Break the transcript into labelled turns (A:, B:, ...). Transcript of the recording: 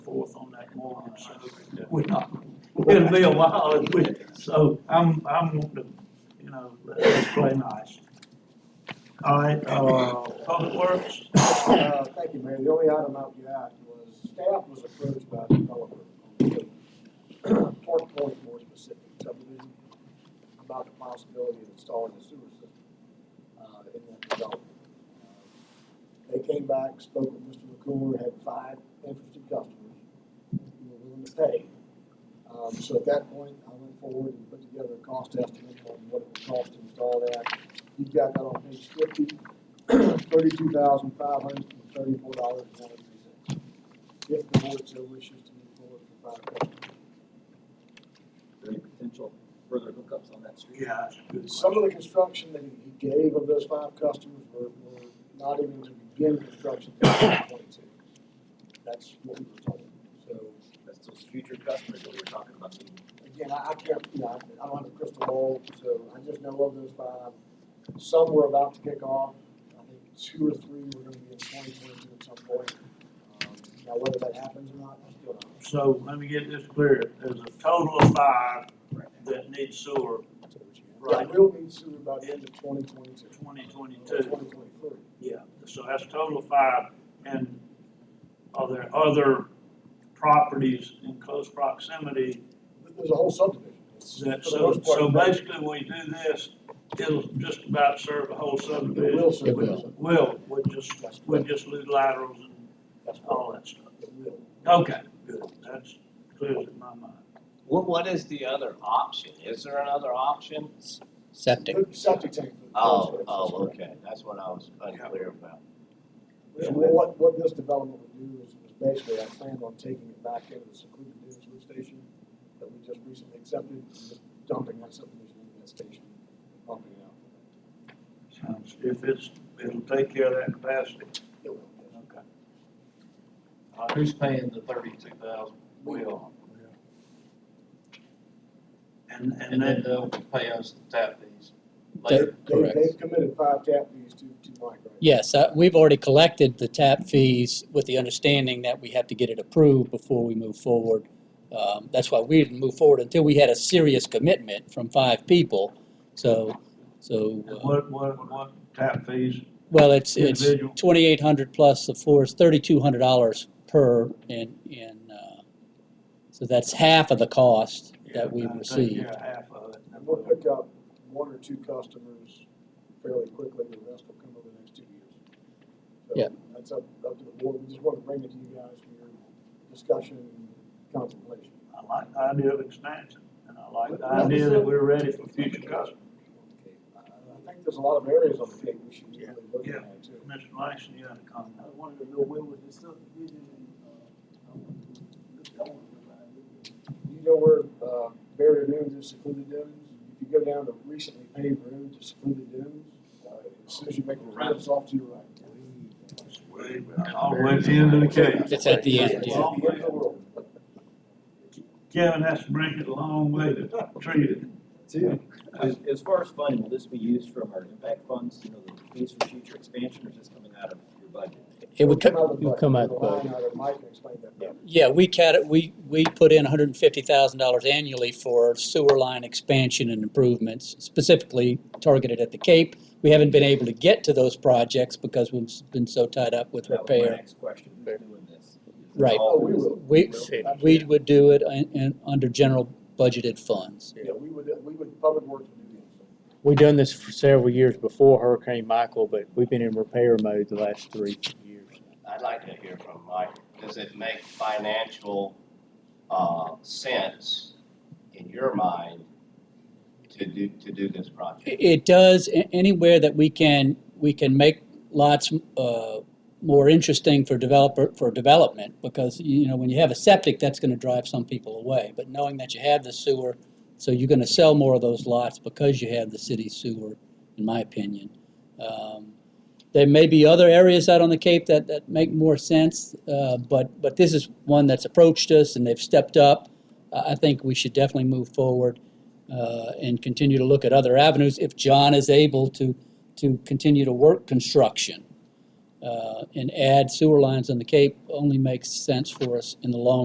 A: forth on that morning, so we're not, it'll be a while, if we- so I'm, I'm wanting to, you know, let's play nice. All right, uh, Public Works,
B: Uh, Thank you, Mayor. The only item I would add was staff was approached by a developer on Park Point, more specific subdivision, about the possibility of installing a sewer system uh, in that development. Uh, They came back, spoke with Mr. McClure, had five interested customers who were willing to pay. Um, So at that point, I went forward and put together a cost estimate on what it would cost to install that. You've got that on page fifty thirty-two thousand five hundred and thirty-four dollars and ninety-three cents. If the board so wishes to move forward for five questions.
C: there any potential further hookups on that street?
A: yeah, that's a good
B: Some
A: question.
B: of the construction that he gave of those five customers were, were not even to begin construction till twenty twenty-two. That's what we were told. So,
C: That's those future customers that we're talking about. meeting.
B: again, I, I can't, you know, I don't have a crystal ball, so I just know of those five. Some were about to kick off, I think two or three were gonna be in twenty twenty-two at some point. Um, Now, whether that happens or not, I still don't know.
A: So let me get this clear, there's a total of five
C: Right.
A: that need sewer
B: Right, we'll need sewer by the end of twenty twenty-two.
A: twenty
B: Twenty
A: twenty-two.
B: twenty-three.
A: Yeah, so that's a total of five, and are there other properties in close proximity
B: There's a whole subdivision. It's-
A: that,
B: for the
A: so,
B: most part,
A: so basically, when we do this, it'll just about serve the whole
B: It
A: subdivision.
B: will serve.
A: Will, we'll just,
B: That's correct.
A: we'll just lose laterals and
B: That's all.
A: all that stuff.
B: It will.
A: Okay, good, that's clear in my mind.
D: What, what is the other option? Is there another option?
E: Septic.
B: Septic tank. for the
D: Oh,
B: first phase,
D: oh,
B: that's correct.
D: okay, that's what I was unclear about.
B: And what, what this development would do is, is basically, I planned on taking it back into the secluded Dunes lift station that we just recently accepted, and just dumping that subdivision into that station, and pumping it out.
A: Sounds, if it's, it'll take care of that capacity.
B: It will.
A: Okay.
F: Uh, Who's paying the thirty-two thousand?
B: We
F: Will.
A: And, and
F: And then
A: then,
F: they'll pay us the tap fees
E: They-
F: later.
B: They,
E: Correct.
B: they've committed five tap fees to, to Mike, right?
E: Yes, uh, we've already collected the tap fees with the understanding that we have to get it approved before we move forward. Um, That's why we didn't move forward until we had a serious commitment from five people. So, so,
A: and
E: uh,
A: what, what, what tap fees?
E: well, it's, it's
A: Individual.
E: 2,800 plus the four is $3,200 per and, and, uh, so that's half of the cost
A: Yeah,
E: that we've
A: I'd say,
E: received.
A: Yeah, half of it.
B: And we'll pick up one or two customers fairly quickly, the rest will come over the next two years. So
E: Yeah.
B: That's up, up to the board, we just want to bring it to you guys for your discussion and contemplation.
A: I like the idea of expansion, and I like the idea that we're ready for future customers.
B: I I think there's a lot of areas on the table we should really look
A: Yeah.
B: at too.
A: Mr. Langston, you had a comment.
G: I wanted to know when was this subdivision and, uh, I wanted to look, I wanted to buy it.
B: uh, You know where, uh, Barrier Dunes is secluded dunes? If you go down to recently paved roads to secluded dunes, uh, as soon as you make the rounds off to your right.
A: All the way to the end of the case.
E: It's at the end, yeah.
B: Long way in the world.
A: Kevin has to bring it a long way to treat it.
C: Two, as, as far as funding, will this be used from our impact funds, you know, the fees for future expansion, or is this coming out of your budget?
E: It would,
B: It'll
E: co-
B: of the
E: it would come out
B: budget.
E: of the budget.
B: Line item, Mike can explain that better.
E: Yeah, we cat, we, we put in hundred and fifty thousand dollars annually for sewer line expansion and improvements, specifically targeted at the Cape. We haven't been able to get to those projects because we've been so tied up with
C: That was my
E: repair.
C: Next question, who's doing this?
E: Right.
C: All
B: Oh, we
C: this-
B: will.
E: We, we would do it in, in, under general budgeted funds.
B: Yeah, we would, we would, Public Works would do that.
H: We've done this for several years before Hurricane Michael, but we've been in repair mode the last three years.
D: I'd like to hear from Mike. Does it make financial, uh, sense in your mind to do, to do this project?
E: It it does, a- anywhere that we can, we can make lots uh, more interesting for developer, for development, because, you know, when you have a septic, that's gonna drive some people away. But knowing that you have the sewer, so you're gonna sell more of those lots because you have the city sewer, in my opinion. Um, There may be other areas out on the Cape that, that make more sense, uh, but, but this is one that's approached us and they've stepped up. I I think we should definitely move forward uh, and continue to look at other avenues if John is able to, to continue to work construction. Uh, And add sewer lines on the Cape only makes sense for us in the long